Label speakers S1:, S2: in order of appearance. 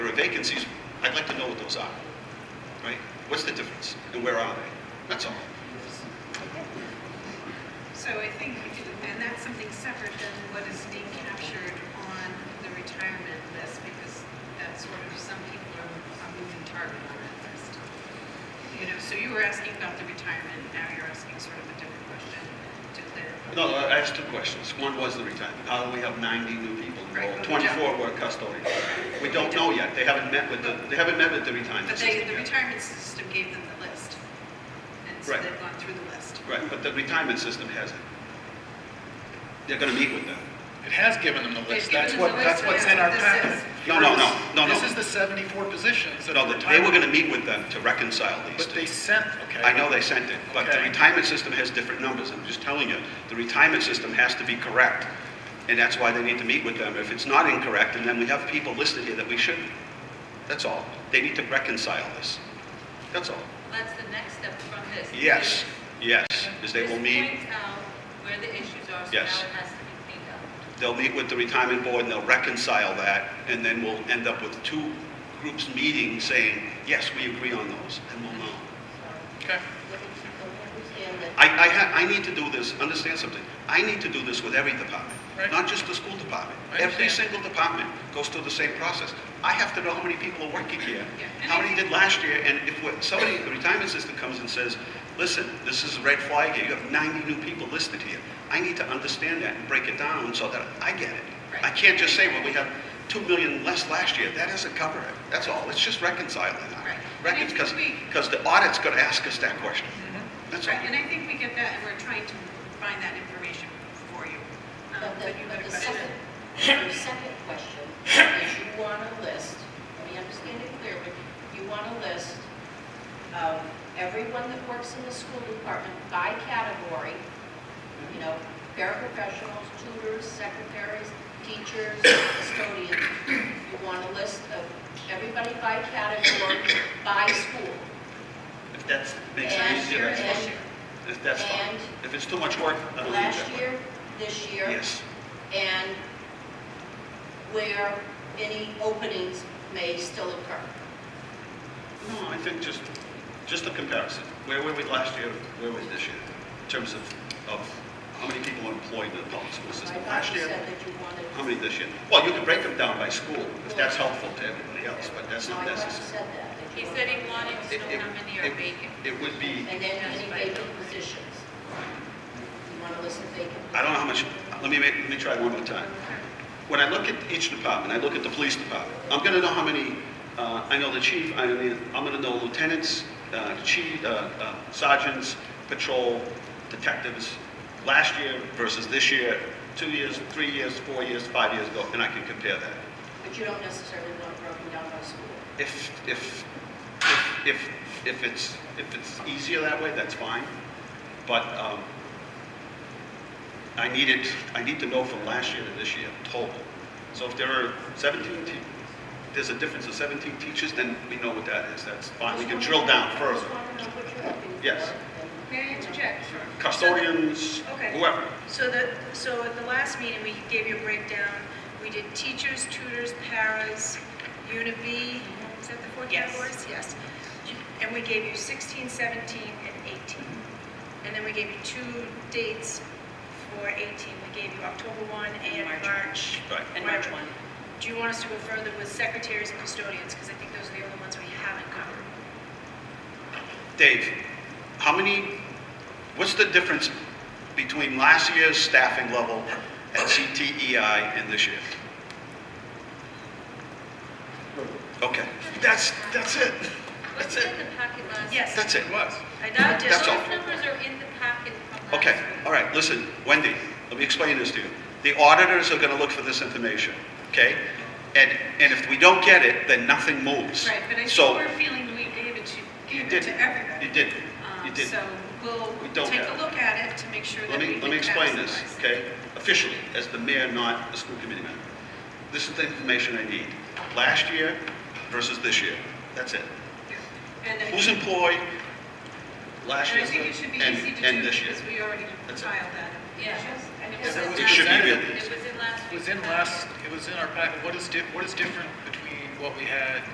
S1: temporary vacancies, I'd like to know what those are, right? What's the difference, and where are they? That's all.
S2: So I think, we do- and that's something separate than what is being captured on the retirement list, because that's sort of, some people are are moving target on that list. You know, so you were asking about the retirement, now you're asking sort of a different question to clarify.
S1: No, I asked two questions. One was the retirement. How do we have 90 new people enrolled?
S2: Right.
S1: 24 were custodians. We don't know yet. They haven't met with the, they haven't met with the retirement
S2: But they,
S1: system
S2: the
S1: yet.
S2: retirement system gave them the list, and so
S1: Right.
S2: they've gone through the list.
S1: Right, but the retirement system hasn't. They're going to meet with them.
S3: It has given them the
S2: They've
S3: list,
S2: given
S3: that's
S2: them
S3: what,
S2: the
S3: that's
S2: list,
S3: what's
S2: but
S3: in our
S2: this
S3: packet.
S2: is-
S1: No, no, no, no,
S3: This
S1: no.
S3: is the 74 positions that
S1: No,
S3: the
S1: they were going to
S3: retirement,
S1: meet with them to reconcile these
S3: but
S1: two.
S3: they sent, okay.
S1: I know they sent it, but the
S3: Okay.
S1: retirement system has different numbers. I'm just telling you, the retirement system has to be correct, and that's why they need to meet with them. If it's not incorrect, and then we have people listed here that we shouldn't. That's all. They need to reconcile this. That's all.
S4: That's the next step from this.
S1: Yes, yes, is they will meet,
S4: Just point out where the issues are, so now it
S1: Yes.
S4: has to be cleaned up.
S1: they'll meet with the retirement board, and they'll reconcile that, and then we'll end up with two groups meeting saying, yes, we agree on those, and we'll know.
S3: Okay,
S1: I, I ha I need to do this, understand something, I need to do this with every department,
S3: Right.
S1: not just the school department.
S3: I
S1: Every
S3: understand.
S1: single department goes through the same process. I have to know how many people are working here,
S2: Yeah.
S1: how many did last year, and if what- somebody, the retirement system comes and says, listen, this is a red flag here, you have 90 new people listed here. I need to understand that and break it down so that I get it. I
S2: Right.
S1: can't just say, well, we have 2 million less last year, that doesn't cover it, that's all, it's just reconciling
S2: Right.
S1: that.
S2: And I think
S1: Because,
S2: we-
S1: because the audit's gonna ask us that question, that's all.
S2: Mm-hmm. Right, and I think we get that, and we're trying to find that information for you. Um,
S5: But the,
S2: you had
S5: but
S2: a
S5: the
S2: question.
S5: second, the second question is you want a list, let me understand it clearly, you want a list of everyone that works in the school department by category, you know, paraprofessionals, tutors, secretaries, teachers, custodians. You want a list of everybody by category, by school.
S1: If that makes it
S5: And-
S1: easier, that's
S5: and-
S1: fine. If that's fine.
S5: and
S1: If it's too much work, I don't need that
S5: Last
S1: one.
S5: year, this year.
S1: Yes,
S5: and where any openings may still occur.
S1: no,
S5: Hmm.
S1: I think just, just a comparison. Where were we last year, where were we this year? In terms of, of how many people are employed in the public school
S5: I
S1: system
S5: thought
S1: last
S5: you
S1: year?
S5: said that you wanted.
S1: How many this year? Well, you can break them down by school, if that's helpful to everybody else, but that's
S5: No,
S1: not
S5: I thought you
S1: necessary.
S5: said that. that
S4: He
S5: you
S4: said he wanted to
S1: It-
S4: know
S1: it-
S4: how many are
S1: it-
S4: vacant.
S1: It would be,
S5: And then any vacant positions. You want to list the vacant.
S1: I don't know how much, let me make, let me try one more time. When I look at each department, I look at the police department, I'm gonna know how many, uh, I know the chief, I mean, I'm gonna know lieutenants, uh, chief, uh, uh, sergeants, patrol, detectives, last year versus this year, two years, three years, four years, five years ago, and I can compare that.
S5: But you don't necessarily want it broken down by school.
S1: If, if, if, if, if it's, if it's easier that way, that's fine, but, um, I need it, I need to know from last year to this year total. So if there are seventeen te, there's a difference of seventeen teachers, then we know what that is, that's fine, we can drill down
S5: I
S1: further.
S5: just want to know what you're hoping for.
S1: Yes.
S5: and-
S2: May I interject? Sure.
S1: Custodians,
S2: Okay.
S1: whoever,
S2: So the, so at the last meeting, we gave you a breakdown. We did teachers, tutors, paras, Unit B, is that the four
S6: Yes.
S2: categories? Yes. And we gave you 16, 17, and 18. And then we gave you two dates for 18. We gave you October 1 and
S6: March.
S2: March.
S1: Right.
S6: And March
S2: whatever.
S6: 1.
S2: Do you want us to go further with secretaries and custodians? Because I think those are the only ones we haven't covered.
S1: Dave, how many, what's the difference between last year's staffing level at CTEI and this year? Okay, that's, that's it, that's
S4: Was it in
S1: it,
S4: the packet last?
S2: Yes.
S1: that's it.
S3: it was.
S2: I now
S4: Those
S1: That's all.
S4: numbers are in the packet from last
S1: Okay,
S4: week.
S1: all right, listen, Wendy, let me explain this to you. The auditors are gonna look for this information, okay? And, and if we don't get it, then nothing moves.
S2: Right, but I
S1: So,
S2: think we're feeling we gave it to,
S1: you
S2: gave it
S1: did,
S2: to everybody.
S1: you did,
S2: Um,
S1: you did.
S2: So we'll
S1: We don't
S2: take
S1: have
S2: a
S1: it.
S2: look at it to make sure that
S1: Let
S2: we
S1: me,
S2: can
S1: let me explain this,
S2: maximize it.
S1: okay? Officially, as the mayor, not the school committee member. This is the information I need. Last year versus this year. That's it.
S2: And I
S1: Who's
S2: think-
S1: employed last
S2: and
S1: year
S2: I think it should be
S1: and,
S2: easy to
S1: and
S2: do
S1: this year?
S2: because we already
S1: That's it.
S2: filed that.
S4: Yeah. And
S3: Yes,
S4: in
S3: it was
S4: last
S1: should be
S4: week.
S1: really
S4: It was in last
S3: It
S4: week.
S3: was in last, it was in our packet, what is, di- what is different between what we had